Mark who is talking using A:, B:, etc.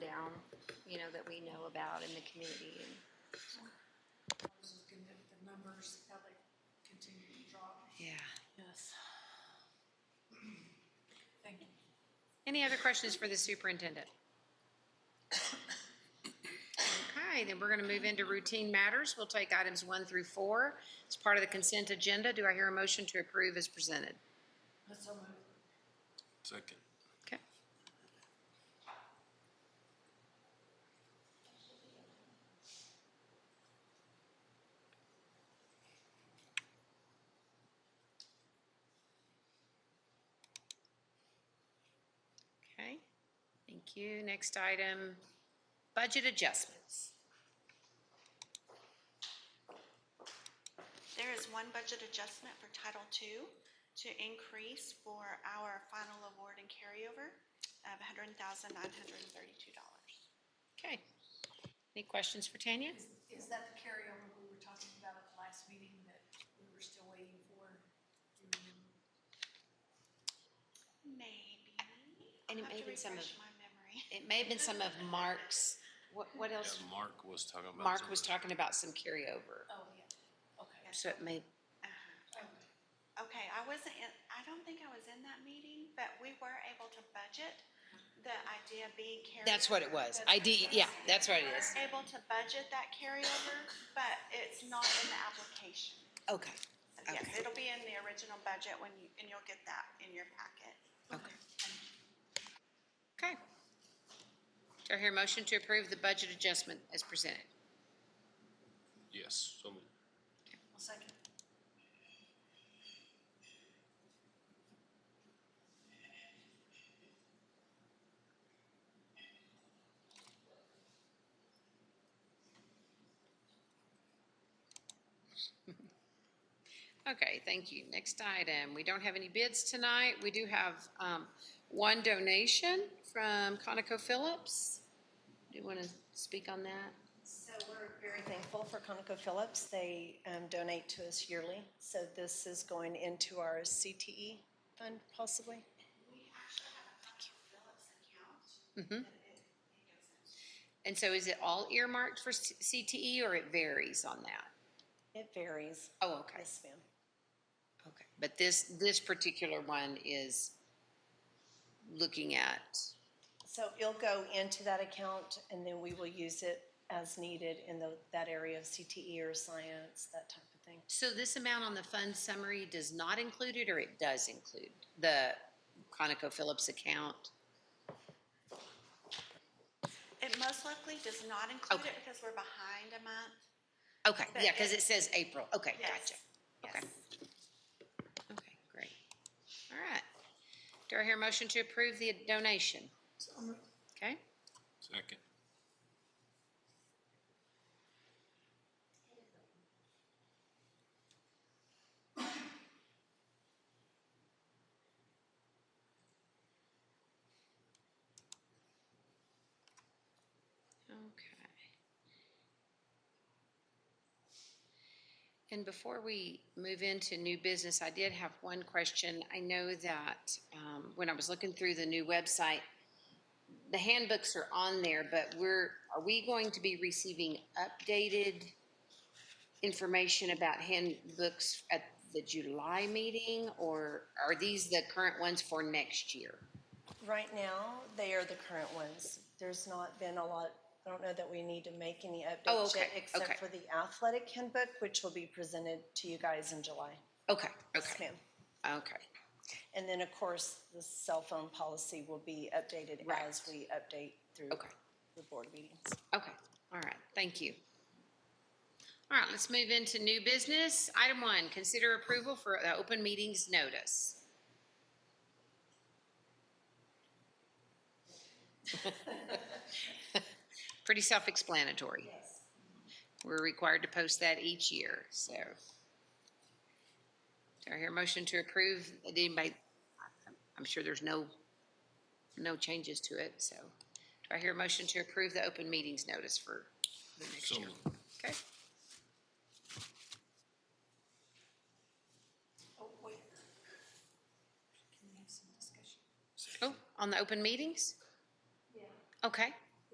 A: about in the community. And
B: I was looking at the numbers, how they continue to drop.
C: Yeah.
B: Yes. Thank you.
C: Any other questions for the superintendent? Okay, then we're going to move into routine matters. We'll take items one through four. It's part of the consent agenda. Do I hear a motion to approve as presented?
B: That's so moved.
D: Second.
C: Okay. Okay, thank you. Next item, budget adjustments.
E: There is one budget adjustment for Title II to increase for our final award and carryover of $100,932.
C: Okay. Any questions for Tanya?
B: Is, is that the carryover we were talking about at the last meeting that we were still waiting for? Do you remember?
E: Maybe.
C: And it
E: I'll have
C: may
E: to
C: have been some of-
E: refresh my memory.
C: It may have been some of Mark's, what, what
D: Yeah,
C: else?
D: Mark was talking about.
C: Mark was
D: something.
C: talking about some carryover.
B: Oh, yeah, okay.
C: So it may,
B: Okay.
E: Okay, I wasn't in, I don't think I was in that meeting, but we were able to budget the idea being carried.
C: that's what it was. ID, yeah, that's what it is.
E: Able to budget that carryover, but it's not in the application.
C: Okay,
E: Yes,
C: Okay.
E: it'll be in the original budget when you, and you'll get that in your packet.
C: okay. Okay. Do I hear a motion to approve the budget adjustment as presented?
D: Yes, so moved.
B: I'll second.
C: Okay, thank you. Next item, we don't have any bids tonight. We do have um, one donation from ConocoPhillips. Do you want to speak on that?
F: So we're very thankful for ConocoPhillips. They um, donate to us yearly, so this is going into our CTE fund possibly.
E: We actually have a Phillips account.
C: And so is it all earmarked for C- CTE or it varies on that?
F: It varies.
C: Oh, okay,
F: Yes, ma'am.
C: okay. But this, this particular one is looking at,
F: So it'll go into that account, and then we will use it as needed in the- that area of CTE or science, that type of thing.
C: so this amount on the fund summary does not include it or it does include the ConocoPhillips account?
E: It most likely does not include it
C: Okay.
E: because we're behind a month.
C: Okay,
E: But
C: yeah, because
E: it-
C: it says April. Okay,
E: Yes.
C: gotcha. Okay. Okay, great. All right. Do I hear a motion to approve the donation? Okay,
D: Second.
C: okay. And before we move into new business, I did have one question. I know that um, when I was looking through the new website, the handbooks are on there, but we're, are we going to be receiving updated information about handbooks at the July meeting? Or are these the current ones for next year?
F: Right now, they are the current ones. There's not been a lot, I don't know that we need to make any
C: Oh,
F: updates
C: okay,
F: yet,
C: okay.
F: except for the athletic handbook, which will be presented to you guys in July.
C: Okay,
F: Yes,
C: okay,
F: ma'am.
C: okay.
F: And then, of course, the cell phone policy will be updated
C: Right.
F: as we update through
C: Okay.
F: the board meetings.
C: Okay, all right, thank you. All right, let's move into new business. Item one, consider approval for the open meetings notice. Pretty self-explanatory. Yes. We're required to post that each year, so. Do I hear a motion to approve? Did anybody, I'm sure there's no, no changes to it, so. Do I hear a motion to approve the open meetings notice for the next
D: So
C: year?
D: moved.
C: Okay.
B: Oh, wait. Can we have some discussion?
C: Oh, on the open meetings?
B: Yeah.
C: Okay.